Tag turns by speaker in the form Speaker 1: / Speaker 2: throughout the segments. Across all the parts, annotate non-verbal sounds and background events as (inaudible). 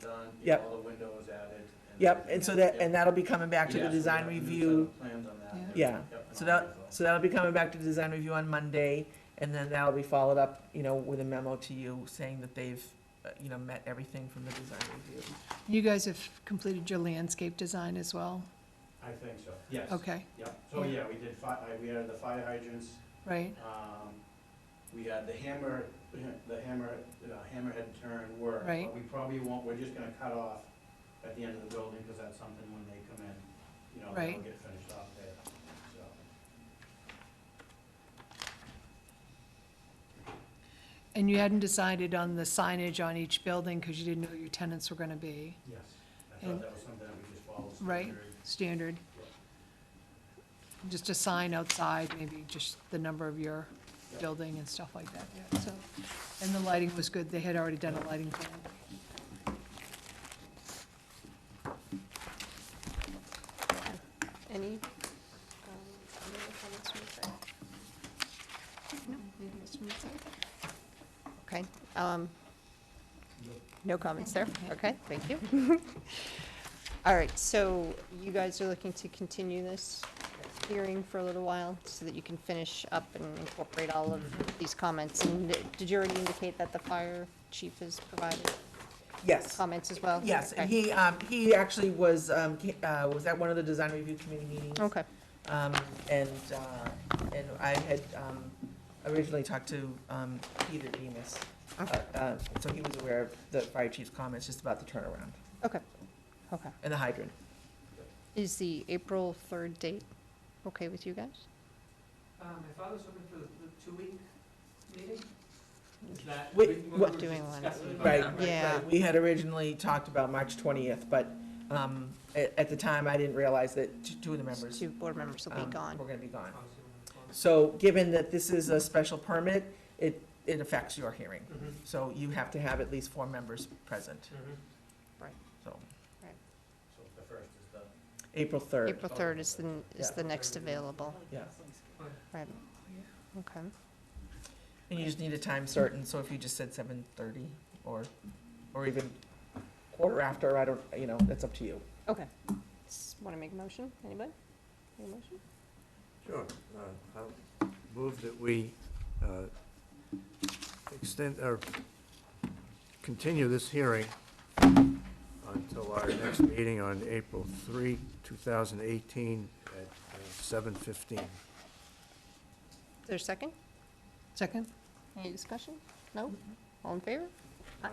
Speaker 1: done, you
Speaker 2: Yep.
Speaker 1: know, all the windows added. and
Speaker 2: Yep,
Speaker 1: everything.
Speaker 2: and so that,
Speaker 1: Yep.
Speaker 2: and that'll be coming back to
Speaker 1: Yeah,
Speaker 2: the
Speaker 1: so we
Speaker 2: design
Speaker 1: have a new set
Speaker 2: review.
Speaker 1: of Plans on that. and
Speaker 2: Yeah.
Speaker 1: everything. Yep, and all
Speaker 2: So
Speaker 1: that
Speaker 2: that,
Speaker 1: is
Speaker 2: so that'll be coming back to the design review on Monday, and then that'll be followed up, you know, with a memo to you saying that they've, uh, you know, met everything from the design review.
Speaker 3: You guys have completed your landscape design as well?
Speaker 1: all. I think so, yes.
Speaker 3: Okay,
Speaker 1: Yep, so
Speaker 3: Yeah.
Speaker 1: yeah, we did fi, I- we added the fire hydrants,
Speaker 3: right,
Speaker 1: um, we had the hammer, (clears throat) the hammer, uh, hammerhead turn work.
Speaker 3: Right.
Speaker 1: But we probably won't, we're just gonna cut off at the end of the building, because that's something when they come in, you know,
Speaker 3: Right.
Speaker 1: they'll get finished off there, so.
Speaker 3: and you hadn't decided on the signage on each building because you didn't know who your tenants were gonna be,
Speaker 1: Yes. I
Speaker 3: And-
Speaker 1: thought that was something that we just followed.
Speaker 3: Right.
Speaker 1: standard.
Speaker 3: standard? Just a sign outside, maybe just the number of your building and stuff like that, yeah, so. And the lighting was good, they had already done a lighting plan.
Speaker 4: Any, um, other comments from the side? No, maybe it's from the side. Okay, um, no comments there, okay, thank you. (laughs) All right, so you guys are looking to continue this hearing for a little while so that you can finish up and incorporate all of these comments? And did you already indicate that the fire chief has provided
Speaker 2: Yes,
Speaker 4: comments as well?
Speaker 2: yes, and
Speaker 4: Okay.
Speaker 2: he, um, he actually was, um, ca- uh, was at one of the design review committee meetings.
Speaker 4: Okay,
Speaker 2: Um, and, uh, and I had, um, originally talked to, um, Peter Demas. uh, uh, So he was aware of the fire chief's comments just about the turnaround
Speaker 4: okay, okay.
Speaker 2: and the hydrant.
Speaker 4: Is the April 3rd date okay with you guys?
Speaker 5: Um, my father's hoping for the, the two-week meeting. Is that?
Speaker 2: Wait,
Speaker 5: we- we
Speaker 2: what-
Speaker 5: were
Speaker 4: Doing
Speaker 5: just
Speaker 4: one.
Speaker 5: discussing about
Speaker 2: Right,
Speaker 5: that,
Speaker 4: Yeah.
Speaker 2: right. We had originally talked about March twentieth, but, um, at, at the time, I didn't realize that t- two of the members.
Speaker 4: Two board members will be
Speaker 2: um,
Speaker 4: gone.
Speaker 2: Were gonna be gone.
Speaker 5: Obviously, we're gonna close.
Speaker 2: So given that this is a special permit, it, it affects your hearing.
Speaker 5: Mhm,
Speaker 2: So you have to have at least four members present,
Speaker 5: mhm.
Speaker 2: Mm-hmm. so
Speaker 1: So the first is the.
Speaker 2: April third.
Speaker 4: April 3rd is the, is the next available,
Speaker 2: Yeah.
Speaker 4: right? Okay,
Speaker 2: And you just need a time certain, so if you just said seven thirty or, or even quarter after, I don't, you know, that's up to you.
Speaker 4: okay. Want to make a motion, anybody? Any motion?
Speaker 6: Sure. Uh, I'll move that we uh, extend, or continue this hearing until our next meeting on April 3, 2018, at uh, 7:15.
Speaker 4: Is there a second?
Speaker 3: Second?
Speaker 4: Any discussion? No? All in favor? Aye.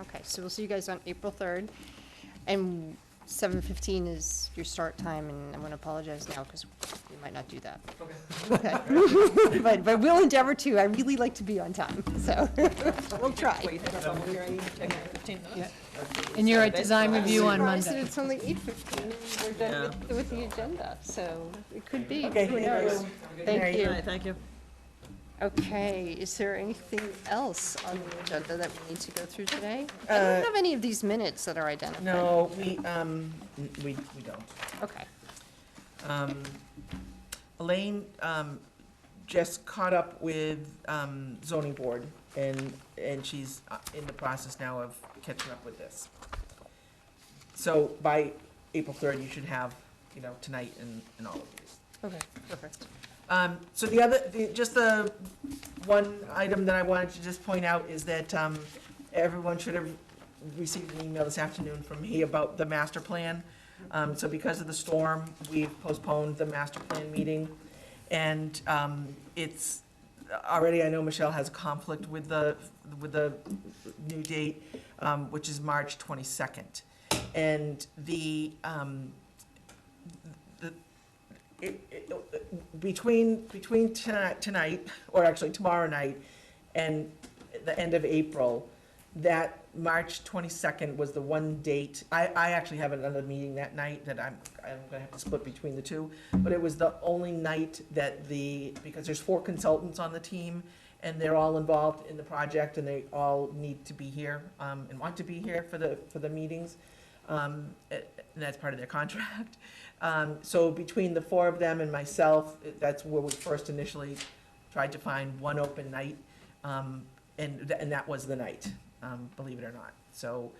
Speaker 4: Okay, so we'll see you guys on April 3rd. And 7:15 is your start time, and I'm going to apologize now because we might not do that.
Speaker 5: Okay.
Speaker 4: Okay. (laughs) But, but we'll endeavor to. I really like to be on time, so we'll try.
Speaker 3: Yeah. And you're at design review on
Speaker 4: Surprised
Speaker 3: Monday.
Speaker 4: that it's only eight fifteen, and we're done with, with the agenda, so it could be,
Speaker 2: Okay,
Speaker 4: who
Speaker 2: thank you.
Speaker 4: knows? Thank you.
Speaker 7: Thank you.
Speaker 4: Okay, is there anything else on the agenda that we need to go through today? I
Speaker 2: Uh,
Speaker 4: don't have any of these minutes that are identified.
Speaker 2: No, we, um, n- we, we don't.
Speaker 4: Okay,
Speaker 2: Um, Elaine um, just caught up with um, zoning board, and, and she's uh, in the process now of catching up with this. So by April 3rd, you should have, you know, tonight and, and all of these.
Speaker 4: okay, perfect.
Speaker 2: Um, so the other, the, just the one item that I wanted to just point out is that, um, everyone should have received an email this afternoon from me about the master plan. Um, so because of the storm, we've postponed the master plan meeting. And, um, it's, already I know Michelle has conflict with the, with the new date, um, which is March twenty-second. And the, um, the, it, it, between, between tonight, tonight, or actually tomorrow night, and the end of April, that March twenty-second was the one date, I, I actually have another meeting that night that I'm, I'm gonna have to split between the two, but it was the only night that the, because there's four consultants on the team, and they're all involved in the project, and they all need to be here, um, and want to be here for the, for the meetings. Um, and that's part of their (laughs) contract. Um, so between the four of them and myself, that's where we first initially tried to find one open night. Um, and, th- and that was the night, um, believe it or not. So,